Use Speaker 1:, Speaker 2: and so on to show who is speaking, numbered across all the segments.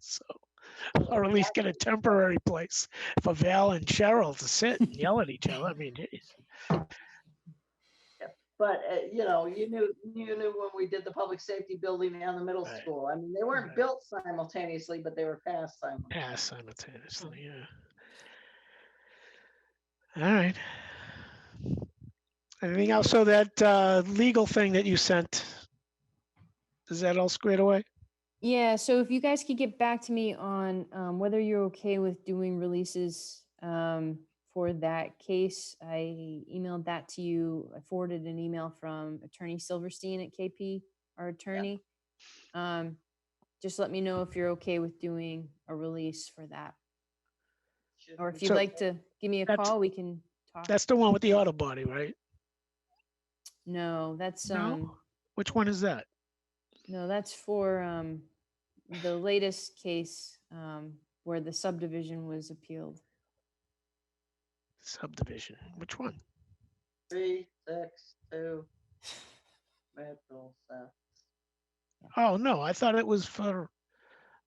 Speaker 1: So, or at least get a temporary place for Val and Cheryl to sit and yell at each other. I mean, geez.
Speaker 2: But, uh, you know, you knew, you knew when we did the public safety building and the middle
Speaker 1: Right.
Speaker 2: school. I mean, they weren't
Speaker 1: Right.
Speaker 2: built simultaneously, but they were passed simultaneously.
Speaker 1: yeah, simultaneously, yeah. All right. Anything else? So that uh, legal thing that you sent, is that all squared away?
Speaker 3: Yeah, so if you guys could get back to me on um, whether you're okay with doing releases um, for that case, I emailed that to you. I forwarded an email from Attorney Silverstein at KP, our attorney. Um, Just let me know if you're okay with doing a release for that,
Speaker 2: Should
Speaker 3: or if
Speaker 2: we-
Speaker 3: you'd
Speaker 1: So-
Speaker 3: like to give me a
Speaker 1: That's-
Speaker 3: call, we can talk.
Speaker 1: That's the one with the auto body, right?
Speaker 3: No, that's, um,
Speaker 1: No? Which one is that?
Speaker 3: no, that's for um, the latest case um, where the subdivision was appealed.
Speaker 1: Subdivision. Which one?
Speaker 2: Three, six, two. Mitchell, so-
Speaker 1: Oh, no, I thought it was for,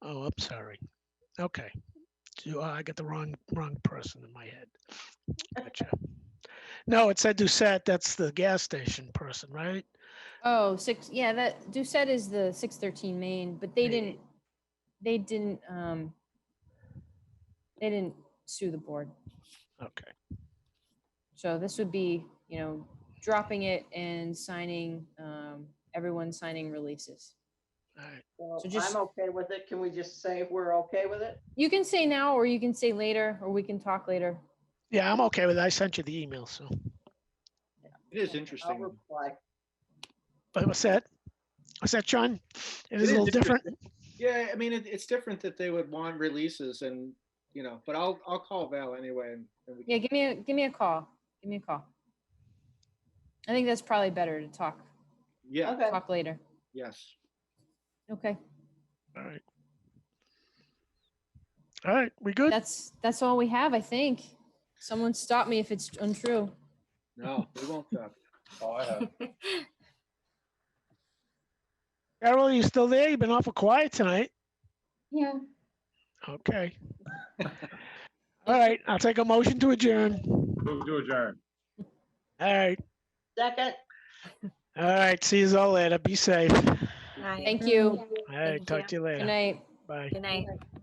Speaker 1: oh, I'm sorry. Okay. Do- I got the wrong, wrong person in my head. Gotcha. No, it said Doucette, that's the gas station person, right?
Speaker 3: Oh, six, yeah, that, Doucette is the six thirteen main, but they
Speaker 1: Main.
Speaker 3: didn't, they didn't, um, they didn't sue the board.
Speaker 1: Okay,
Speaker 3: So this would be, you know, dropping it and signing, um, everyone signing releases.
Speaker 1: all right.
Speaker 2: Well,
Speaker 3: So just-
Speaker 2: I'm okay with it. Can we just say we're okay with it?
Speaker 3: You can say now, or you can say later, or we can talk later.
Speaker 1: Yeah, I'm okay with it. I sent you the email, so.
Speaker 4: It is
Speaker 2: I'll
Speaker 4: interesting.
Speaker 2: reply.
Speaker 1: But what's that? What's that, John? It is
Speaker 4: is
Speaker 1: a little different.
Speaker 4: different. Yeah, I mean, it, it's different that they would want releases and, you know, but I'll, I'll call Val anyway. and and we
Speaker 3: Yeah,
Speaker 4: can
Speaker 3: give me, a give me a call. Give me a call. I think that's probably better to talk,
Speaker 4: Yeah,
Speaker 2: Okay,
Speaker 3: talk later.
Speaker 4: yes.
Speaker 3: Okay,
Speaker 1: All right. All right, we good?
Speaker 3: that's, that's all we have, I think. Someone stop me if it's untrue.
Speaker 4: No, we won't. uh,
Speaker 5: Oh, I have.
Speaker 1: Carol, you still there? You've been awful quiet tonight.
Speaker 3: Yeah.
Speaker 1: Okay. All right, I'll take a motion to adjourn.
Speaker 5: Move to adjourn.
Speaker 1: All right,
Speaker 2: second.
Speaker 1: all right, see you all later. Be safe. All
Speaker 6: Right.
Speaker 3: Thank you.
Speaker 1: right, talk to you
Speaker 3: Good
Speaker 1: later.
Speaker 3: night.
Speaker 1: Bye.
Speaker 6: Good night.